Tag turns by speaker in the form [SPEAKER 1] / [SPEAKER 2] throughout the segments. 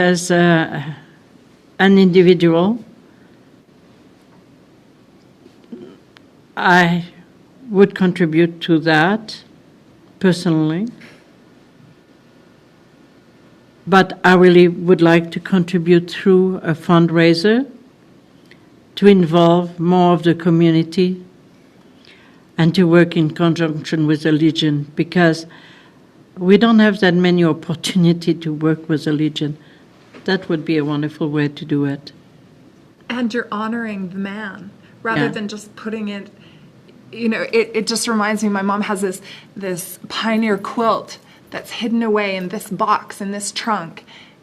[SPEAKER 1] as uh, an individual, I would contribute to that personally. But I really would like to contribute through a fundraiser to involve more of the community and to work in conjunction with the Legion because we don't have that many opportunity to work with the Legion. That would be a wonderful way to do it.
[SPEAKER 2] and you're honoring the man rather
[SPEAKER 1] Yeah.
[SPEAKER 2] than just putting it you know it, it just reminds me my mom has this this pioneer quilt that's hidden away in this box in this trunk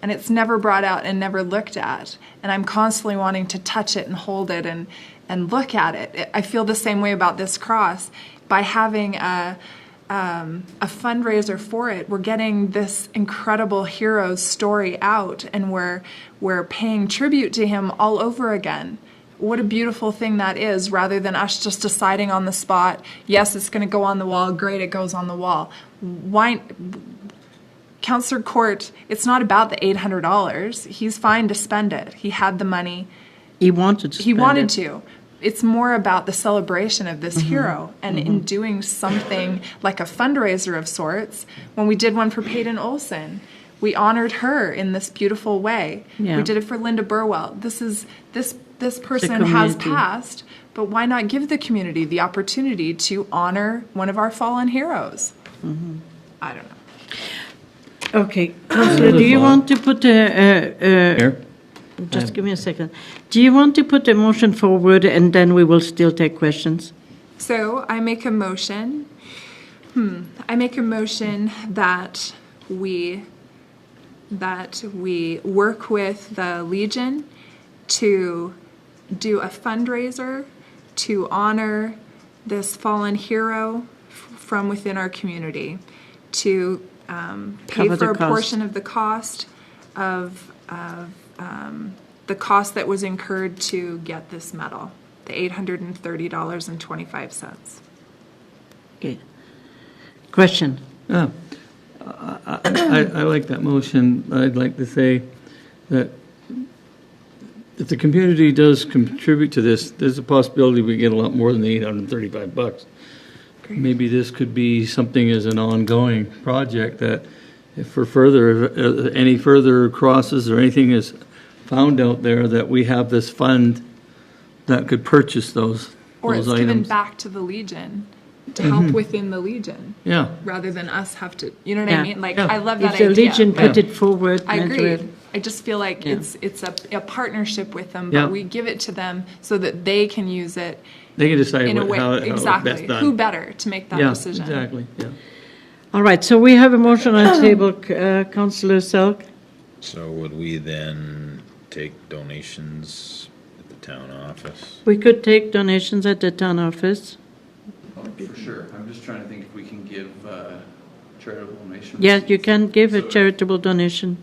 [SPEAKER 2] and it's never brought out and never looked at and i'm constantly wanting to touch it and hold it and and look at it i feel the same way about this cross by having a um, a fundraiser for it. We're getting this incredible hero's story out, and we're we're paying tribute to him all over again. What a beautiful thing that is, rather than us just deciding on the spot. Yes, it's going to go on the wall. Great, it goes on the wall. Why, Counselor Court? It's not about the eight hundred dollars. He's fine to spend it. He had the money
[SPEAKER 1] He wanted to.
[SPEAKER 2] he
[SPEAKER 1] spend
[SPEAKER 2] wanted
[SPEAKER 1] it. Mm-hmm.
[SPEAKER 2] to it's more about the celebration of this hero and in doing something like a fundraiser of sorts when we did one for Peyton Olson we honored her in this beautiful way
[SPEAKER 1] Yeah.
[SPEAKER 2] we did it for Linda Burwell this is this this person has
[SPEAKER 1] community.
[SPEAKER 2] passed but why not give the community the opportunity to honor one of our fallen heroes
[SPEAKER 1] Mm-hmm.
[SPEAKER 2] i don't know
[SPEAKER 1] Okay, Counselor, do you want to put a, a,
[SPEAKER 3] Mayor?
[SPEAKER 1] a- just give me a second. Do you want to put a motion forward and then we will still take questions?
[SPEAKER 2] So I make a motion. Hmm. I make a motion that we that we work with the Legion to do a fundraiser to honor this fallen hero f- from within our community to um, pay
[SPEAKER 1] Cover the
[SPEAKER 2] for a
[SPEAKER 1] cost.
[SPEAKER 2] portion of the cost of, of um, the cost that was incurred to get this medal, the $830.25.
[SPEAKER 1] Okay. Question?
[SPEAKER 3] Yeah. I, I I like that motion. I'd like to say that if the community does contribute to this, there's a possibility we get a lot more than the 835 bucks.
[SPEAKER 2] Great.
[SPEAKER 3] Maybe this could be something as an ongoing project that if for further, uh, any further crosses or anything is found out there, that we have this fund that could purchase those,
[SPEAKER 2] Or it's
[SPEAKER 3] those
[SPEAKER 2] given
[SPEAKER 3] items. Mm-hmm.
[SPEAKER 2] back to the Legion to help within the Legion
[SPEAKER 3] Yeah,
[SPEAKER 2] rather than us have to, you know what
[SPEAKER 1] Yeah.
[SPEAKER 2] I mean? Like,
[SPEAKER 3] Yeah.
[SPEAKER 2] I love that
[SPEAKER 1] If the
[SPEAKER 2] idea.
[SPEAKER 1] Legion
[SPEAKER 2] but
[SPEAKER 1] put it forward,
[SPEAKER 2] I
[SPEAKER 1] Madrid-
[SPEAKER 2] agree. I just feel like
[SPEAKER 1] Yeah.
[SPEAKER 2] it's it's a, a partnership with them,
[SPEAKER 3] Yeah.
[SPEAKER 2] but we give it to them so that they can use it
[SPEAKER 3] they can decide
[SPEAKER 2] in a
[SPEAKER 3] what-
[SPEAKER 2] way.
[SPEAKER 3] how, how it's best done.
[SPEAKER 2] exactly. Who better to make that
[SPEAKER 3] Yeah,
[SPEAKER 2] decision?
[SPEAKER 3] Exactly, yeah.
[SPEAKER 1] All right, so we have a motion on the table, uh, Councillor Selk.
[SPEAKER 4] So would we then take donations at the town office?
[SPEAKER 1] We could take donations at the town office.
[SPEAKER 5] Oh, For sure. I'm just trying to think if we can give uh, charitable donations.
[SPEAKER 1] Yes, you can give a charitable donation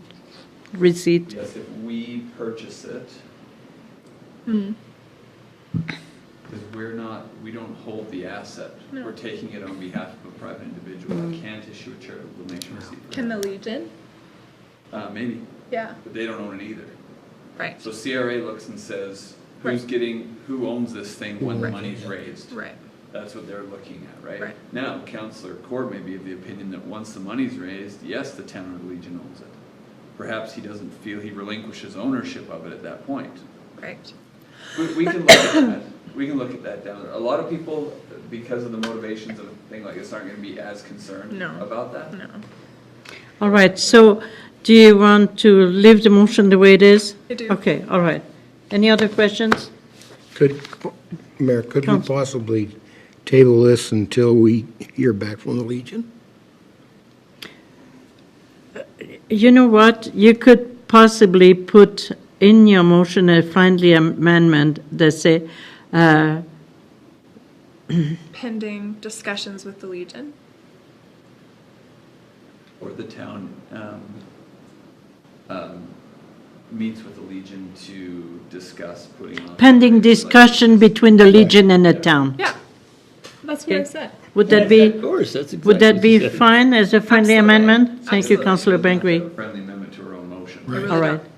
[SPEAKER 1] receipt.
[SPEAKER 5] Yes, if we purchase it.
[SPEAKER 2] Hmm.
[SPEAKER 5] Because we're not, we don't hold the asset. We're taking it on behalf of a private individual.
[SPEAKER 1] Mm-hmm.
[SPEAKER 5] I can't issue a charitable donation receipt for
[SPEAKER 2] Can
[SPEAKER 5] that.
[SPEAKER 2] the Legion?
[SPEAKER 5] Uh, maybe,
[SPEAKER 2] Yeah.
[SPEAKER 5] but they don't own it either.
[SPEAKER 2] Right.
[SPEAKER 5] So CRA looks and says, who's
[SPEAKER 2] Right.
[SPEAKER 5] getting, who owns this thing when the money's raised?
[SPEAKER 2] Right.
[SPEAKER 5] That's what they're looking at, right?
[SPEAKER 2] Right.
[SPEAKER 5] Now, Counselor Cord may be of the opinion that once the money's raised, yes, the town or the Legion owns it. Perhaps he doesn't feel he relinquishes ownership of it at that point.
[SPEAKER 2] Right.
[SPEAKER 5] We, we can look at that, we can look at that down there. A lot of people, because of the motivations of a thing like this, aren't gonna be as concerned
[SPEAKER 2] No.
[SPEAKER 5] about that.
[SPEAKER 2] No.
[SPEAKER 1] All right, so do you want to leave the motion the way it is?
[SPEAKER 2] I do.
[SPEAKER 1] Okay, all right. Any other questions?
[SPEAKER 6] Could, Mayor, could we
[SPEAKER 1] Counsel.
[SPEAKER 6] possibly table this until we hear back from the Legion?
[SPEAKER 1] You know what? You could possibly put in your motion a friendly amendment that say, uh,
[SPEAKER 2] Pending discussions with the Legion.
[SPEAKER 5] Or the town, um, um, meets with the Legion to discuss putting on.
[SPEAKER 1] pending
[SPEAKER 5] like-
[SPEAKER 1] discussion between the Legion and the town.
[SPEAKER 2] Yeah. That's what I
[SPEAKER 1] Okay.
[SPEAKER 2] said.
[SPEAKER 1] Would that be,
[SPEAKER 3] course, that's exactly.
[SPEAKER 1] would that be fine as a friendly
[SPEAKER 2] Absolutely.
[SPEAKER 1] amendment? Thank you,
[SPEAKER 2] Absolutely.
[SPEAKER 1] Councillor
[SPEAKER 5] Doesn't have to have
[SPEAKER 1] Bengry.
[SPEAKER 5] a Friendly amendment to her own motion.
[SPEAKER 7] All
[SPEAKER 1] really
[SPEAKER 7] right.
[SPEAKER 1] don't.